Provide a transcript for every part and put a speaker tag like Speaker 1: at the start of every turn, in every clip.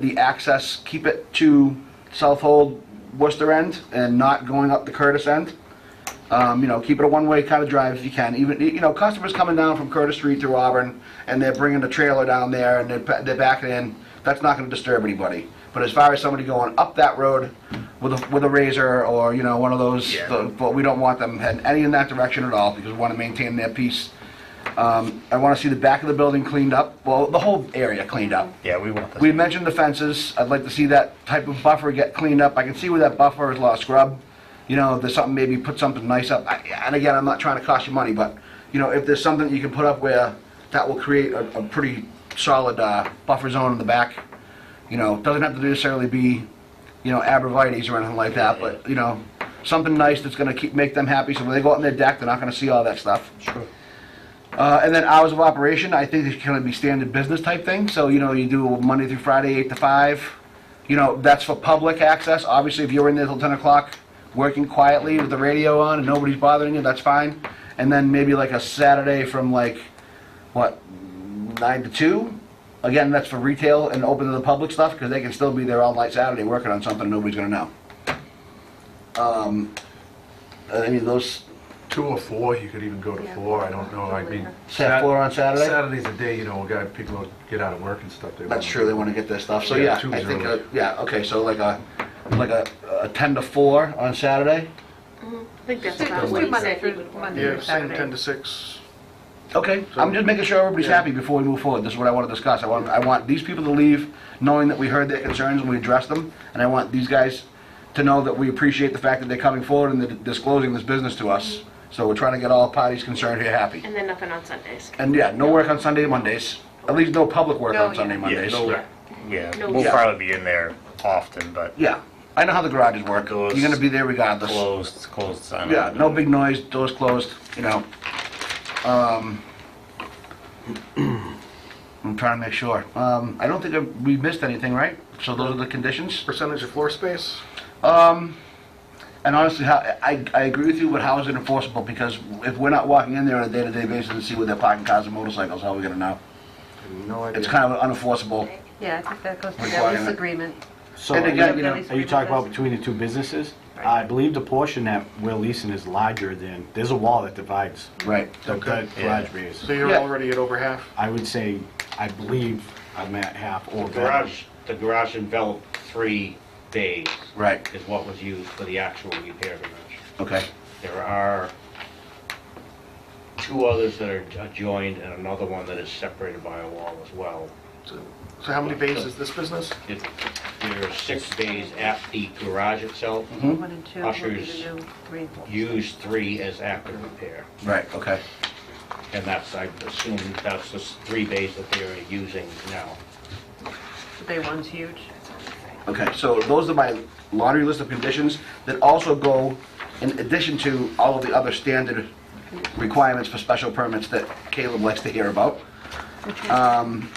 Speaker 1: the access, keep it to South Hold Worcester end and not going up the Curtis end. Um, you know, keep it a one-way kind of drive if you can. Even, you know, customers coming down from Curtis Street through Auburn and they're bringing the trailer down there and they're, pa- they're backing in, that's not gonna disturb anybody. But as far as somebody going up that road with a, with a razor or, you know, one of those,
Speaker 2: Yeah.
Speaker 1: the- but we don't want them heading any in that direction at all because we wanna maintain their peace. Um, I wanna see the back of the building cleaned up, well, the whole area cleaned up.
Speaker 2: Yeah, we want this.
Speaker 1: We mentioned the fences, I'd like to see that type of buffer get cleaned up, I can see where that buffer has lost scrub. You know, if there's something, maybe put something nice up, I- and again, I'm not trying to cost you money, but, you know, if there's something you can put up where that will create a, a pretty solid, uh, buffer zone in the back, you know, doesn't have to necessarily be, you know, abrevieties or anything like that, but, you know, something nice that's gonna keep, make them happy, so when they go out on their deck, they're not gonna see all that stuff.
Speaker 2: Sure.
Speaker 1: Uh, and then hours of operation, I think it's gonna be standard business type thing, so, you know, you do Monday through Friday, eight to five. You know, that's for public access, obviously, if you're in there till ten o'clock, working quietly with the radio on and nobody's bothering you, that's fine. And then maybe like a Saturday from like, what, nine to two? Again, that's for retail and open to the public stuff, because they can still be there all night Saturday working on something nobody's gonna know. Um, I mean, those,
Speaker 3: Two or four, you could even go to
Speaker 4: Yeah.
Speaker 3: four, I don't know, I mean.
Speaker 1: Sat four on Saturday?
Speaker 3: Saturday's a day, you know, a guy, people get out of work and stuff. they
Speaker 1: That's
Speaker 3: wanna-
Speaker 1: true, they wanna get their stuff, so
Speaker 3: Yeah,
Speaker 1: yeah,
Speaker 3: two's
Speaker 1: I think, uh,
Speaker 3: early.
Speaker 1: yeah, okay, so like a, like a, a ten to four on Saturday?
Speaker 4: I think that's
Speaker 5: Just
Speaker 4: about
Speaker 5: do
Speaker 4: what he
Speaker 5: Monday
Speaker 4: said he
Speaker 5: through
Speaker 4: would want.
Speaker 5: Monday
Speaker 6: Yeah,
Speaker 5: through
Speaker 6: same 10 to
Speaker 5: Saturday.
Speaker 6: 6.
Speaker 1: Okay, I'm just making sure everybody's
Speaker 6: Yeah.
Speaker 1: happy before we move forward, this is what I wanna discuss, I want, I want these people to leave knowing that we heard their concerns and we addressed them, and I want these guys to know that we appreciate the fact that they're coming forward and they're disclosing this business to us, so we're trying to get all parties concerned here happy.
Speaker 4: And then nothing on Sundays.
Speaker 1: And yeah, no work on Sunday, Mondays, at least no public work
Speaker 5: No,
Speaker 1: on Sunday,
Speaker 5: yeah.
Speaker 1: Mondays.
Speaker 2: no-
Speaker 4: Yeah.
Speaker 2: Yeah,
Speaker 4: No.
Speaker 2: we'll
Speaker 4: Yeah.
Speaker 2: probably be in there often, but
Speaker 1: Yeah, I know how the garages work, you're
Speaker 2: Closed.
Speaker 1: gonna be there regardless.
Speaker 2: closed, it's closed Sunday.
Speaker 1: Yeah, no big noise, doors closed, you know. Um, I'm trying to make sure. Um, I don't think I- we missed anything, right? So those are the conditions?
Speaker 6: Percentage of floor space?
Speaker 1: Um, and honestly, how, I, I agree with you, but how is it enforceable? Because if we're not walking in there on a day-to-day basis and see where they're parking cars and motorcycles, how are we gonna know?
Speaker 6: No idea.
Speaker 1: It's kind of unenforceable.
Speaker 5: Yeah, I think that goes to
Speaker 1: Requirement.
Speaker 5: Debbie's agreement.
Speaker 7: So,
Speaker 1: And
Speaker 7: are
Speaker 1: again, you
Speaker 7: you
Speaker 1: know,
Speaker 5: Debbie's
Speaker 7: talking
Speaker 5: agreement
Speaker 7: about between the two businesses? I believe the portion that we're leasing is larger than, there's a wall that divides
Speaker 1: Right.
Speaker 7: the the garage bays.
Speaker 6: So you're
Speaker 1: Yeah.
Speaker 6: already at over half?
Speaker 7: I would say, I believe I'm at half or better.
Speaker 8: Garage, the garage enveloped three bays
Speaker 1: Right,
Speaker 8: is what was used for the actual repair garage.
Speaker 1: okay.
Speaker 8: There are two others that are adjoined and another one that is separated by a wall as well.
Speaker 6: So so how many bays is this business?
Speaker 8: It- There are six bays at the garage itself,
Speaker 9: Mm-hmm.
Speaker 5: One and two will be
Speaker 8: Ushers.
Speaker 5: the new three and four.
Speaker 8: used three as after repair.
Speaker 1: Right, okay.
Speaker 8: And that's, I assume, that's the s- three bays that they are using now.
Speaker 5: Day one's huge.
Speaker 1: Okay, so those are my laundry list of conditions that also go in addition to all of the other standard requirements for special permits that Caleb likes to hear about. Um,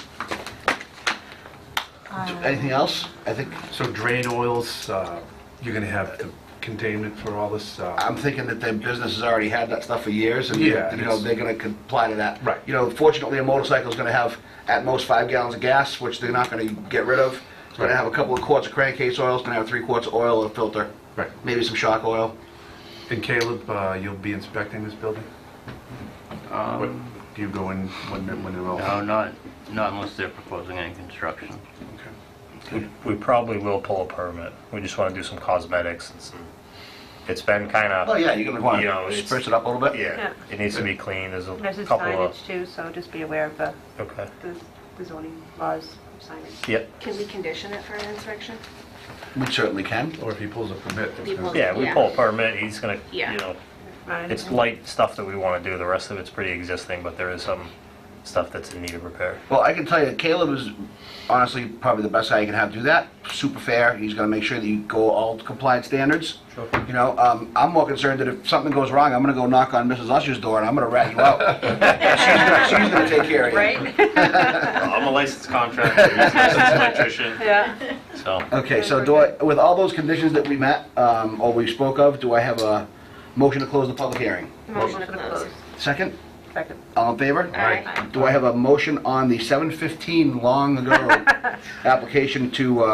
Speaker 1: Anything else? I think,
Speaker 3: So drain oils, uh, you're gonna have the containment for all this, uh,
Speaker 1: I'm thinking that their business has already had that stuff for years and, you
Speaker 3: Yeah,
Speaker 1: know,
Speaker 3: it's-
Speaker 1: they're gonna comply to that.
Speaker 3: Right.
Speaker 1: You know, fortunately, a motorcycle's gonna have at most five gallons of gas, which they're not gonna get rid of. It's gonna
Speaker 3: Right.
Speaker 1: have a couple of quarts of crankcase oil, it's gonna have three quarts of oil, a filter,
Speaker 3: right.
Speaker 1: maybe some shock oil.
Speaker 3: And Caleb, uh, you'll be inspecting this building?
Speaker 6: Um,
Speaker 3: What- Do you go in when, when they're all?
Speaker 9: No, Oh, not, not unless they're proposing any construction.
Speaker 3: Okay.
Speaker 2: We- We probably will pull a permit. We just want to do some cosmetics and some, it's been kind
Speaker 1: Oh,
Speaker 2: of,
Speaker 1: yeah, you're gonna
Speaker 2: You know,
Speaker 1: wanna
Speaker 2: it's-
Speaker 1: spritz it up a little bit?
Speaker 2: yeah,
Speaker 5: Yeah.
Speaker 2: it needs to be cleaned. There's a
Speaker 5: There's a
Speaker 2: couple of,
Speaker 5: signage too, so just be aware of the
Speaker 2: okay.
Speaker 5: the the zoning laws of signage.
Speaker 2: Yep,
Speaker 4: Can we condition it for an inspection?
Speaker 1: We certainly can.
Speaker 3: Or if he pulls a permit. there's no-
Speaker 2: yeah, we
Speaker 4: Yeah.
Speaker 2: pull a permit, he's gonna, you
Speaker 4: Yeah.
Speaker 2: know,
Speaker 5: Right?
Speaker 2: it's light stuff that we want to do. The rest of it's pretty existing, but there is some stuff that's in need of repair.
Speaker 1: Well, I can tell you, Caleb is honestly probably the best guy you can have do that. Super fair. He's gonna make sure that you go all compliant standards.
Speaker 2: Sure.
Speaker 1: You know, um, I'm more concerned that if something goes wrong, I'm gonna go knock on Mrs. Usher's door and I'm gonna rat you out. She's gonna, she's gonna take care of you.
Speaker 5: Right?
Speaker 9: Uh, I'm a licensed contractor, he's a licensed electrician,
Speaker 5: Yeah.
Speaker 9: so.
Speaker 1: Okay, so do I, with all those conditions that we met, um, or we spoke of, do I have a motion to close the public hearing?
Speaker 4: Motion to
Speaker 5: Motion to
Speaker 4: close.
Speaker 5: close.
Speaker 1: Second?
Speaker 5: Second.
Speaker 1: All in favor?
Speaker 4: All right.
Speaker 1: Do I have a motion on the 715 Long Ago application to uh,